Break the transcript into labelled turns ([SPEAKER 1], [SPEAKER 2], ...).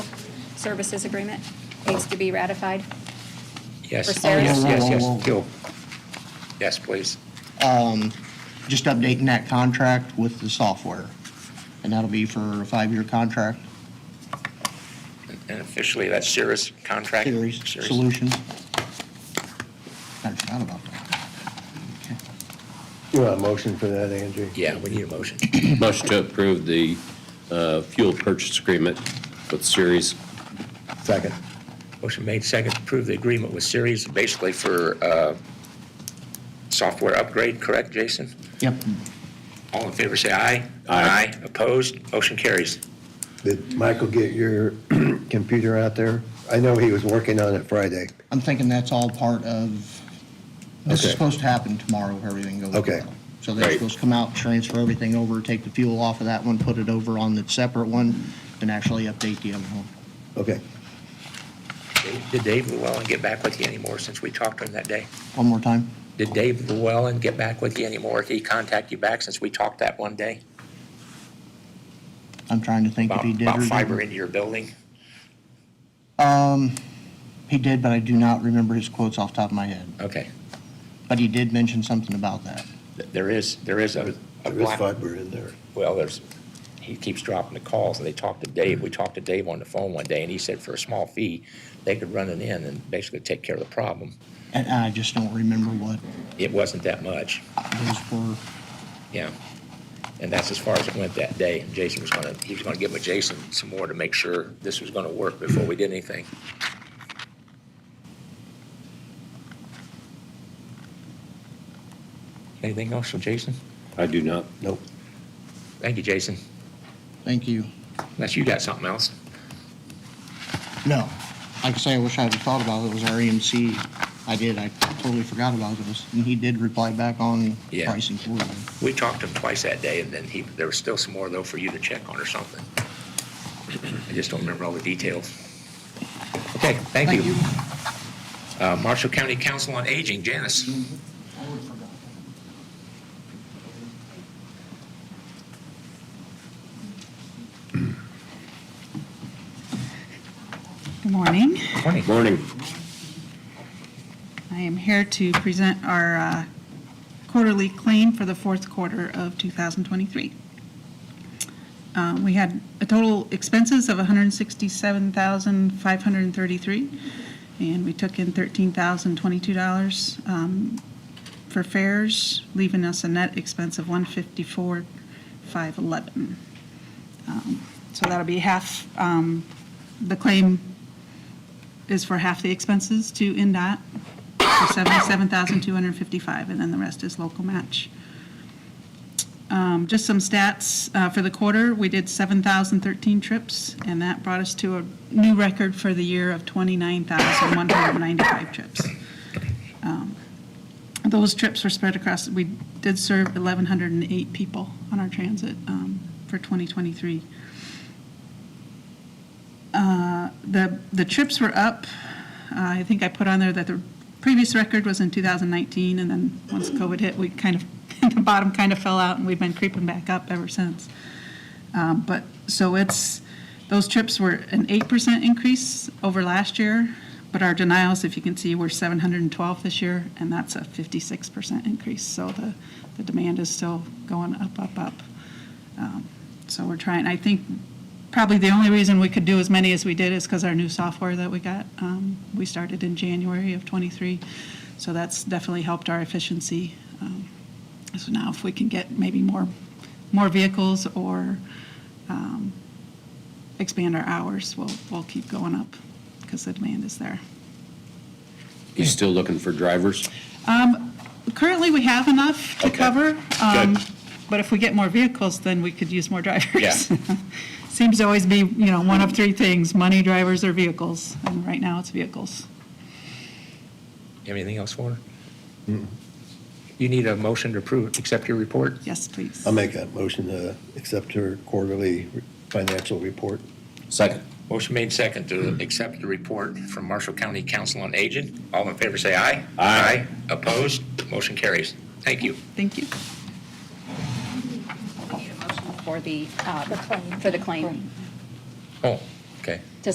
[SPEAKER 1] services agreement needs to be ratified. For
[SPEAKER 2] Yes,
[SPEAKER 1] Sarah?
[SPEAKER 2] Oh, yes, yes,
[SPEAKER 3] Whoa, whoa,
[SPEAKER 2] yes,
[SPEAKER 3] whoa,
[SPEAKER 2] Gil. Yes, please.
[SPEAKER 3] Just updating that contract with the software. And that'll be for a five-year contract,
[SPEAKER 2] And officially, that's Cirrus contract?
[SPEAKER 3] series,
[SPEAKER 2] Cirrus.
[SPEAKER 3] solution. I forgot about that.
[SPEAKER 4] You want a motion for that, Andrew?
[SPEAKER 2] Yeah, we need a motion.
[SPEAKER 5] Motion to approve the uh, fuel purchase agreement with Series.
[SPEAKER 4] Second.
[SPEAKER 2] Motion made second to approve the agreement with Cirrus, basically for uh, software upgrade, correct, Jason?
[SPEAKER 3] Yep,
[SPEAKER 2] All in favor, say aye.
[SPEAKER 5] Aye.
[SPEAKER 2] Opposed? Motion carries.
[SPEAKER 4] Did Michael get your computer out there? I know he was working on it Friday.
[SPEAKER 3] I'm thinking that's all part of, this is
[SPEAKER 4] Okay.
[SPEAKER 3] supposed to happen tomorrow if everything goes well.
[SPEAKER 4] Okay.
[SPEAKER 3] So they're
[SPEAKER 5] Right.
[SPEAKER 3] supposed to come out, transfer everything over, take the fuel off of that one, put it over on the separate one, and actually update the other one.
[SPEAKER 4] Okay.
[SPEAKER 2] Did Dave Llewellyn get back with you anymore since we talked to him that day?
[SPEAKER 3] One more time?
[SPEAKER 2] Did Dave Llewellyn get back with you anymore? Did he contact you back since we talked that one day?
[SPEAKER 3] I'm trying to think if
[SPEAKER 2] About
[SPEAKER 3] he did or
[SPEAKER 2] about
[SPEAKER 3] didn't.
[SPEAKER 2] fiber into your building?
[SPEAKER 3] Um, he did, but I do not remember his quotes off the top of my head.
[SPEAKER 2] Okay.
[SPEAKER 3] But he did mention something about that.
[SPEAKER 2] Th- There is, there is a a
[SPEAKER 4] There is
[SPEAKER 2] black
[SPEAKER 4] fiber in there.
[SPEAKER 2] well, there's, he keeps dropping the calls, and they talked to Dave, we talked to Dave on the phone one day, and he said for a small fee, they could run it in and basically take care of the problem.
[SPEAKER 3] And I just don't remember what
[SPEAKER 2] It wasn't that much,
[SPEAKER 3] those were.
[SPEAKER 2] yeah. And that's as far as it went that day, and Jason was gonna, he was gonna give with Jason some more to make sure this was gonna work before we did anything. Anything else for Jason?
[SPEAKER 5] I do not.
[SPEAKER 4] Nope.
[SPEAKER 2] Thank you, Jason,
[SPEAKER 3] Thank you.
[SPEAKER 2] unless you got something else.
[SPEAKER 3] No. Like I say, I wish I had thought about it. It was our EMC. I did. I totally forgot about those. And he did reply back on
[SPEAKER 2] Yeah.
[SPEAKER 3] pricing for them.
[SPEAKER 2] We talked to him twice that day, and then he, there was still some more though for you to check on or something. I just don't remember all the details. Okay, thank you. Uh, Marshall County Council on Aging, Janice.
[SPEAKER 6] Good morning.
[SPEAKER 2] Morning.
[SPEAKER 5] Morning.
[SPEAKER 6] I am here to present our uh, quarterly claim for the fourth quarter of 2023. Uh, We had a total expenses of $167,533, and we took in $13,022 um, for fares, leaving us a net expense of $154,511. Um, So that'll be half um, the claim is for half the expenses to NDOT for 77,255, and then the rest is local match. Um, Just some stats uh, for the quarter, we did 7,013 trips, and that brought us to a new record for the year of 29,195 trips. Um, Those trips were spread across, we did serve 1,108 people on our transit um, for 2023 the, the trips were up. Uh, I think I put on there that the previous record was in 2019, and then once COVID hit, we kind of, the bottom kind of fell out, and we've been creeping back up ever since. Um, But, so it's, those trips were an 8% increase over last year, but our denials, if you can see, were 712 this year, and that's a 56% increase. So the, the demand is still going up, up, up. Um, So we're trying, I think probably the only reason we could do as many as we did is because our new software that we got, um, we started in January of '23. So that's definitely helped our efficiency. Um, So now if we can get maybe more, more vehicles or um, expand our hours, we'll, we'll keep going up because the demand is there.
[SPEAKER 5] You still looking for drivers?
[SPEAKER 6] Currently, we have enough to
[SPEAKER 5] Okay.
[SPEAKER 6] cover. um,
[SPEAKER 5] Good.
[SPEAKER 6] But if we get more vehicles, then we could use more drivers.
[SPEAKER 5] Yeah.
[SPEAKER 6] Seems to always be, you know, one of three things, money, drivers, or vehicles. And right now, it's vehicles.
[SPEAKER 2] Anything else for her? You need a motion to approve, accept your report?
[SPEAKER 6] Yes, please.
[SPEAKER 4] I'll make that motion to accept her quarterly financial report.
[SPEAKER 5] Second.
[SPEAKER 2] Motion made second to accept the report from Marshall County Council on Aging. All in favor, say aye.
[SPEAKER 5] Aye.
[SPEAKER 2] Opposed? Motion carries. Thank you.
[SPEAKER 6] Thank you.
[SPEAKER 1] For the, uh, for the claim.
[SPEAKER 2] Oh,